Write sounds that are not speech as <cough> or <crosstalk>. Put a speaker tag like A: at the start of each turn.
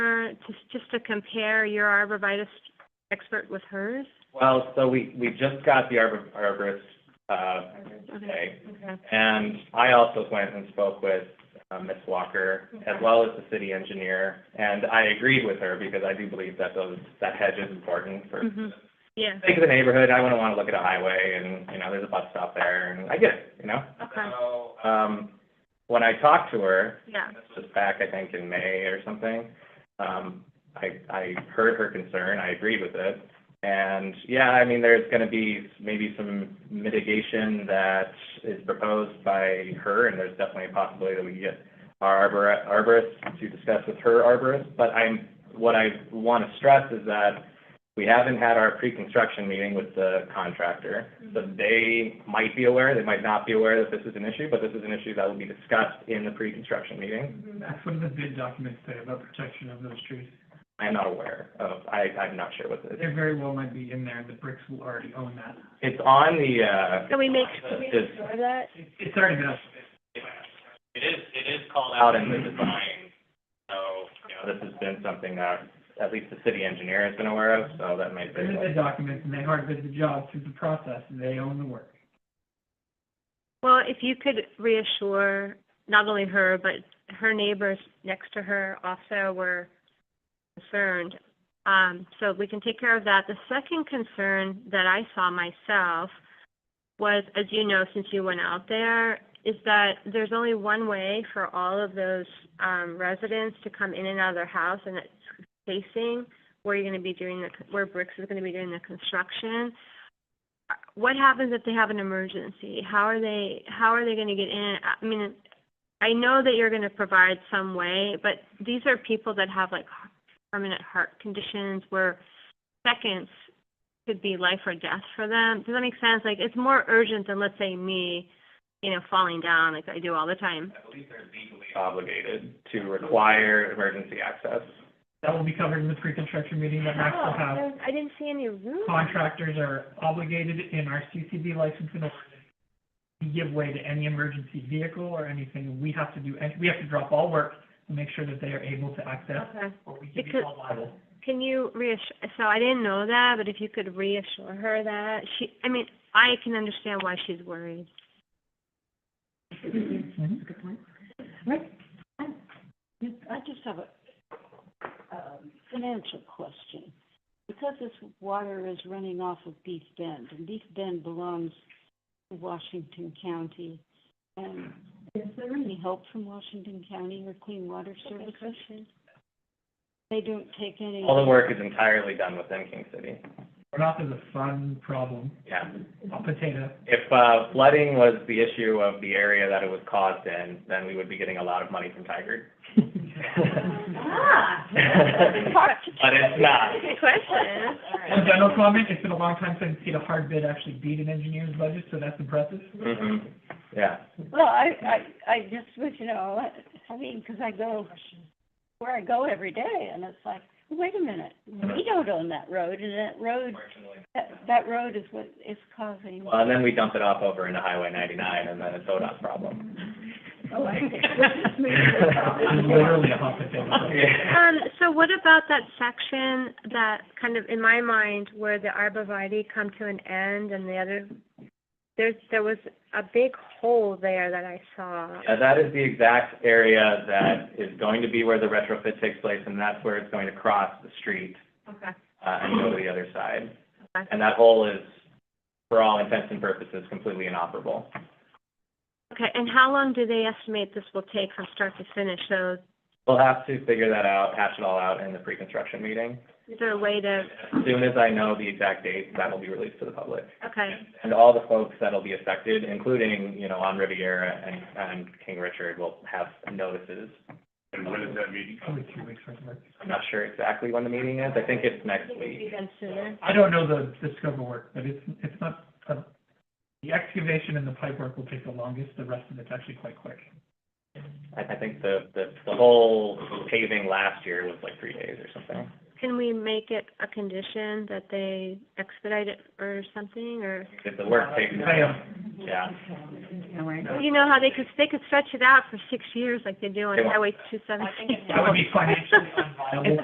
A: just, just to compare your arborvitae expert with hers?
B: Well, so we, we just got the arbor, arborist, uh,
A: Okay.
B: today,
A: Okay.
B: and I also went and spoke with, uh, Ms. Walker, as well as the city engineer, and I agreed with her, because I do believe that those, that hedge is important for
A: hmm yeah,
B: sake of the neighborhood, I wouldn't want to look at a highway, and, you know, there's a bus stop there, and I get it, you know?
A: okay,
B: So, um, when I talked to her,
A: yeah,
B: this was back, I think, in May or something. Um, I, I heard her concern, I agreed with it. And, yeah, I mean, there's gonna be maybe some mitigation that is proposed by her, and there's definitely a possibility that we can get our arbor, arborist to discuss with her arborist, but I'm, what I wanna stress is that we haven't had our pre-construction meeting with the contractor, so they might be aware, they might not be aware that this is an issue, but this is an issue that will be discussed in the pre-construction meeting.
C: That's what the bid documents say about protection of those trees.
B: I am not aware of, I, I'm not sure what this
C: They very well might be in there, the bricks will already own that.
B: It's on the, uh.
A: Can we make-
B: it's-
A: that,
C: It- It's already been up.
B: It is, it is called out in the design, so, you know, this has been something that at least the city engineer has been aware of, so that might be.
C: They're in the bid documents, and they hard bid the job through the process, and they own the work.
A: well, if you could reassure not only her, but her neighbors next to her also were concerned. Um, so we can take care of that. The second concern that I saw myself was, as you know, since you went out there, is that there's only one way for all of those, um, residents to come in and out of their house, and it's facing where you're gonna be doing the, where Bricks is gonna be doing the construction. What happens if they have an emergency? How are they, how are they gonna get in? I mean, I know that you're gonna provide some way, but these are people that have like permanent heart conditions where seconds could be life or death for them. Does that make sense? Like, it's more urgent than, let's say, me, you know, falling down like I do all the time.
B: I believe they're legally obligated to require emergency access.
C: That will be covered in the pre-construction meeting that Max will have.
A: Oh, I didn't see any room.
C: Contractors are obligated in our CCD license in order to give way to any emergency vehicle or anything. We have to do, and we have to drop all work and make sure that they are able to access,
A: Okay.
C: or we can be
A: Because-
C: held liable.
A: Can you reassure, so I didn't know that, but if you could reassure her that, she, I mean, I can understand why she's <laughs> worried.
C: Mhm.
D: I just have a, um, financial question. Because this water is running off of Beef Bend, and Beef Bend belongs to Washington County, and is there any help from Washington County or Clean Water Services? They don't take any.
B: All the work is entirely done within King City,
C: runoff is a fun problem,
B: yeah.
C: hot potato.
B: If, uh, flooding was the issue of the area that it was caused in, then we would be getting a lot of money from Tigard. But it's not.
A: Good question.
C: One general comment, it's been a long time since I've seen a hard bid actually beat an engineer's budget, so that's impressive.
E: <laughs>
B: Mhm. Yeah.
D: Well, I, I, I just was, you know, I mean, because I go where I go every day, and it's like, wait a minute, we don't own that road, and that road, that, that road is what is causing.
B: Well, and then we dump it off over into Highway ninety-nine, and then it's ODOT's problem.
A: <laughs>
D: Oh, I
B: <laughs>
D: see.
C: It's literally a hot potato.
B: Yeah.
A: Um, so what about that section that kind of, in my mind, where the arborvitae come to an end and the other, there's, there was a big hole there that I saw.
B: Yeah, that is the exact area that is going to be where the retrofit takes place, and that's where it's going to cross the street,
A: Okay.
B: uh, and go to the other side.
A: Okay.
B: And that hole is, for all intents and purposes, completely inoperable.
A: Okay, and how long do they estimate this will take from start to finish? So
B: We'll have to figure that out, hash it all out in the pre-construction meeting.
A: is there a way to,
B: As soon as I know the exact date, that will be released to the public.
A: okay,
B: And all the folks that'll be affected, including, you know, on Riviera and, and King Richard, will have notices.
E: And when is that meeting?
C: Probably two weeks worth of work.
B: I'm not sure exactly when the meeting is, I think it's next week.
A: even sooner?
C: I don't know the, the scope of work, but it's, it's not, uh, the excavation and the pipe work will take the longest, the rest of it's actually quite quick.
B: I, I think the, the, the whole paving last year was like three days or something.
A: Can we make it a condition that they expedite it or something, or?
B: If the work takes,
C: Hey, uh,
B: yeah.
A: You know how they could, they could stretch it out for six years like they do on
B: They won't.
A: Highway two seventeen. <laughs>
C: that would be financially unviable.